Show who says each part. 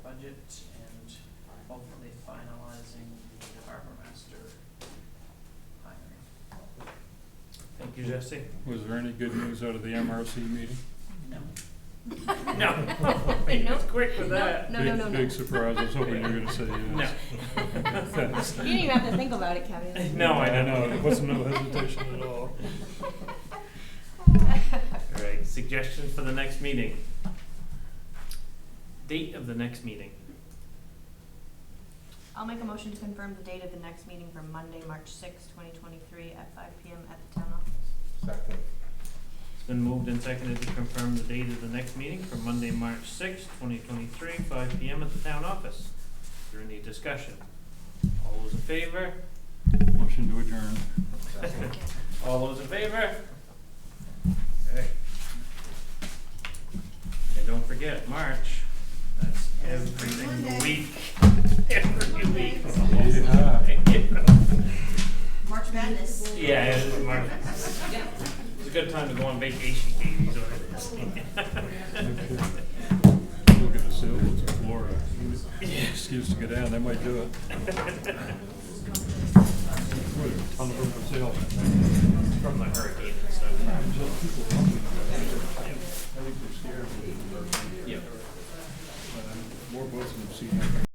Speaker 1: budget and hopefully finalizing the harbor master hiring.
Speaker 2: Thank you, Jesse.
Speaker 3: Was there any good news out of the MRC meeting?
Speaker 1: No,
Speaker 2: No. He was quick with that.
Speaker 4: No, no,
Speaker 3: Big-
Speaker 4: no, no.
Speaker 3: Big surprise, I was hoping you were gonna say
Speaker 2: No.
Speaker 3: yes. Thanks.
Speaker 4: You didn't even have to think about it, Kevin.
Speaker 2: No, I
Speaker 3: I
Speaker 2: didn't.
Speaker 3: know, it wasn't no hesitation at all.
Speaker 2: All right, suggestion for the next meeting. Date of the next meeting.
Speaker 4: I'll make a motion to confirm the date of the next meeting for Monday, March sixth, twenty twenty-three, at five P M at the town office.
Speaker 5: Second.
Speaker 2: It's been moved and seconded to confirm the date of the next meeting for Monday, March sixth, twenty twenty-three, five P M at the town office. Is there any discussion? All those in favor?
Speaker 3: Motion to adjourn.
Speaker 5: Second.
Speaker 2: All those in favor? Okay. And don't forget, March, that's every single week, every week.
Speaker 3: Yeah.
Speaker 6: March Madness.
Speaker 2: Yeah, it is March. It's a good time to go on vacation, Katie's
Speaker 3: Look at the sailboats in Florida. Excuse to get down, they might do it. Boy, there are a ton of them for sale.
Speaker 2: from the hurricane and stuff.
Speaker 3: I think they're scared.
Speaker 2: Yeah.
Speaker 3: More boats than I've seen.